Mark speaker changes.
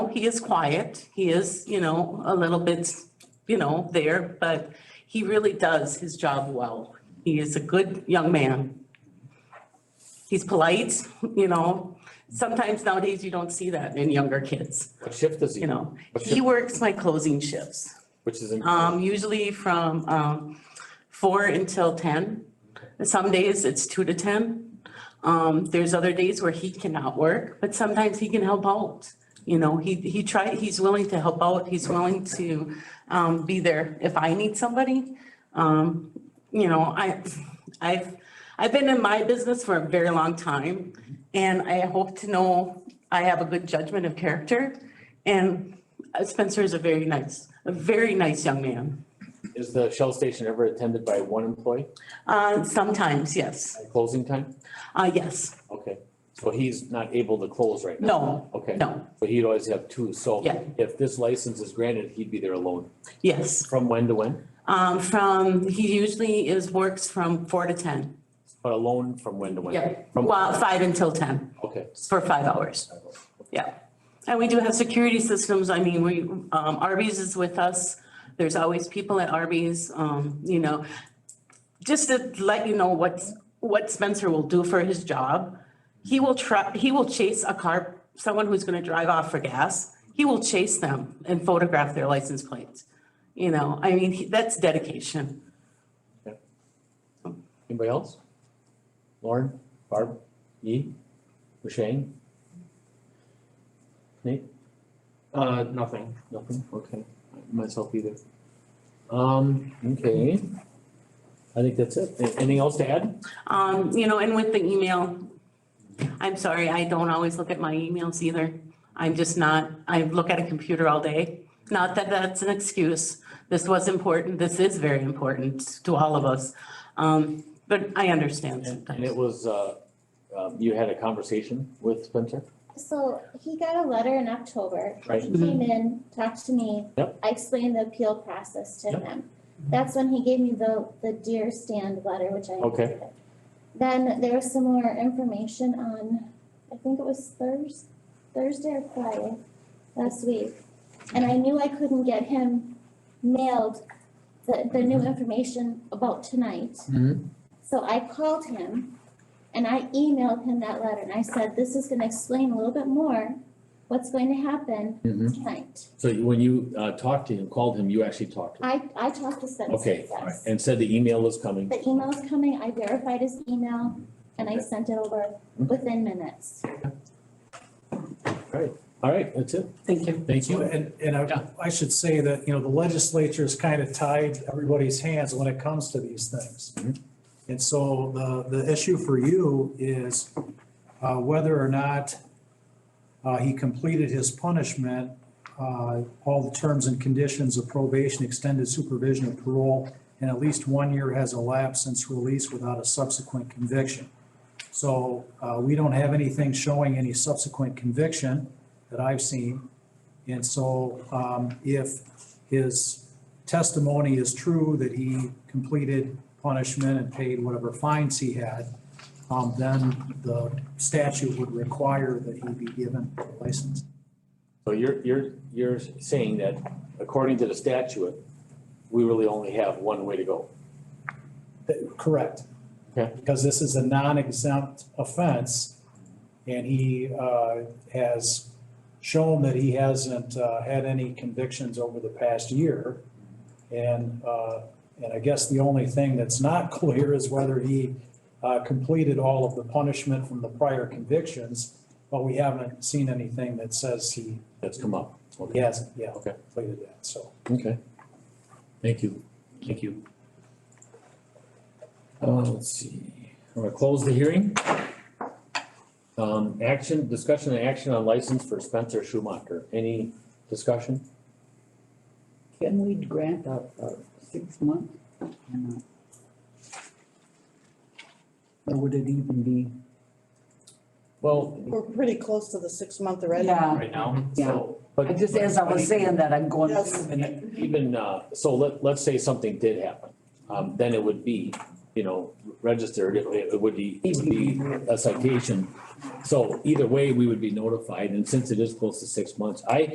Speaker 1: he is quiet. He is, you know, a little bit, you know, there, but he really does his job well. He is a good young man. He's polite, you know. Sometimes nowadays you don't see that in younger kids,
Speaker 2: What shift does he?
Speaker 1: you know.
Speaker 2: What
Speaker 1: He
Speaker 2: shift,
Speaker 1: works my closing shifts,
Speaker 2: which is, in-
Speaker 1: um, usually from, um, four until ten. Some days it's two to ten. Um, there's other days where he cannot work, but sometimes he can help out. You know, he, he try, he's willing to help out. He's willing to, um, be there if I need somebody. Um, you know, I, I've, I've been in my business for a very long time and I hope to know I have a good judgment of character. And uh, Spencer is a very nice, a very nice young man.
Speaker 2: is the Shell station ever attended by one employee
Speaker 1: Uh, sometimes, yes,
Speaker 2: at closing time?
Speaker 1: uh, yes,
Speaker 2: Okay, so he's not able to close right now?
Speaker 1: no,
Speaker 2: Okay.
Speaker 1: no,
Speaker 2: But he'd always have two, so
Speaker 1: Yeah.
Speaker 2: if this license is granted, he'd be there alone.
Speaker 1: yes.
Speaker 2: From when to when?
Speaker 1: Um, from, he usually is, works from four to ten.
Speaker 2: But alone from when to when? From,
Speaker 1: Well, five until ten,
Speaker 2: okay.
Speaker 1: for five hours. Yeah. And we do have security systems. I mean, we, um, Arby's is with us. There's always people at Arby's, um, you know. Just to let you know what's, what Spencer will do for his job. He will try, he will chase a car, someone who's gonna drive off for gas. He will chase them and photograph their license plates. You know, I mean, he- that's dedication.
Speaker 2: Anybody else? Lauren, Barb, Yi, Shane? Nate?
Speaker 3: Uh, nothing.
Speaker 2: Nothing, okay, myself either. Um, okay. I think that's it. A- Anything else to add?
Speaker 1: Um, you know, and with the email, I'm sorry, I don't always look at my emails either. I'm just not, I look at a computer all day. Not that that's an excuse. This was important. This is very important to all of us. Um, but I understand
Speaker 2: And and it
Speaker 1: sometimes.
Speaker 2: was, uh, um, you had a conversation with Spencer?
Speaker 4: So he got a letter in October.
Speaker 2: Right.
Speaker 4: He came in, talked to me.
Speaker 2: Yep.
Speaker 4: I explained the appeal process to
Speaker 2: Yep.
Speaker 4: him. That's when he gave me the, the deer stand letter, which I
Speaker 2: Okay.
Speaker 4: included. Then there was some more information on, I think it was Thursday, Thursday or Friday last week. And I knew I couldn't get him mailed the, the new information about tonight.
Speaker 2: Mm-hmm.
Speaker 4: So I called him and I emailed him that letter and I said, this is gonna explain a little bit more what's going to happen
Speaker 2: Hmm?
Speaker 4: tonight.
Speaker 2: Mm-hmm. So you- when you, uh, talked to him, called him, you actually talked to him?
Speaker 4: I, I talked to Spencer,
Speaker 2: Okay,
Speaker 4: yes.
Speaker 2: all right, and said the email is coming.
Speaker 4: The e- email's coming, I verified his email and I
Speaker 2: Okay. Hmm?
Speaker 4: sent it over within minutes.
Speaker 2: All right, that's it.
Speaker 1: Thank you.
Speaker 2: Thank
Speaker 5: So,
Speaker 2: you.
Speaker 5: and, and I, I should say that, you know, the legislature is kind of tied everybody's hands when it comes to these things.
Speaker 2: Mhm.
Speaker 5: And so the, the issue for you is, uh, whether or not, uh, he completed his punishment, uh, all the terms and conditions of probation, extended supervision of parole, and at least one year has elapsed since release without a subsequent conviction. So, uh, we don't have anything showing any subsequent conviction that I've seen. And so um, if his testimony is true that he completed punishment and paid whatever fines he had, um, then the statute would require that he be given a license.
Speaker 2: So you're, you're, you're saying that according to the statute, we really only have one way to go.
Speaker 5: That- Correct.
Speaker 2: Okay.
Speaker 5: Because this is a non-exempt offense and he uh, has shown that he hasn't uh, had any convictions over the past year. And, uh, and I guess the only thing that's not clear is whether he uh, completed all of the punishment from the prior convictions, but we haven't seen anything that says he
Speaker 2: That's come up. Okay.
Speaker 5: he hasn't, yeah,
Speaker 2: Okay.
Speaker 5: completed that, so.
Speaker 2: Okay. Thank you. Thank you. Uh, let's see, I'm gonna close the hearing. Um, action, discussion and action on license for Spencer Schumacher. Any discussion?
Speaker 6: Can we grant a, a six month? or not? Or would it even be?
Speaker 2: Well,
Speaker 7: We're pretty close to the six month already.
Speaker 6: Yeah,
Speaker 2: right now,
Speaker 6: yeah.
Speaker 2: so.
Speaker 6: I
Speaker 2: but-
Speaker 6: just, as I was saying that, I'm going.
Speaker 7: Yes.
Speaker 2: Even, uh, so let, let's say something did happen, um, then it would be, you know, registered, it, it would be, it would be a citation. So either way, we would be notified, and since it is close to six months, I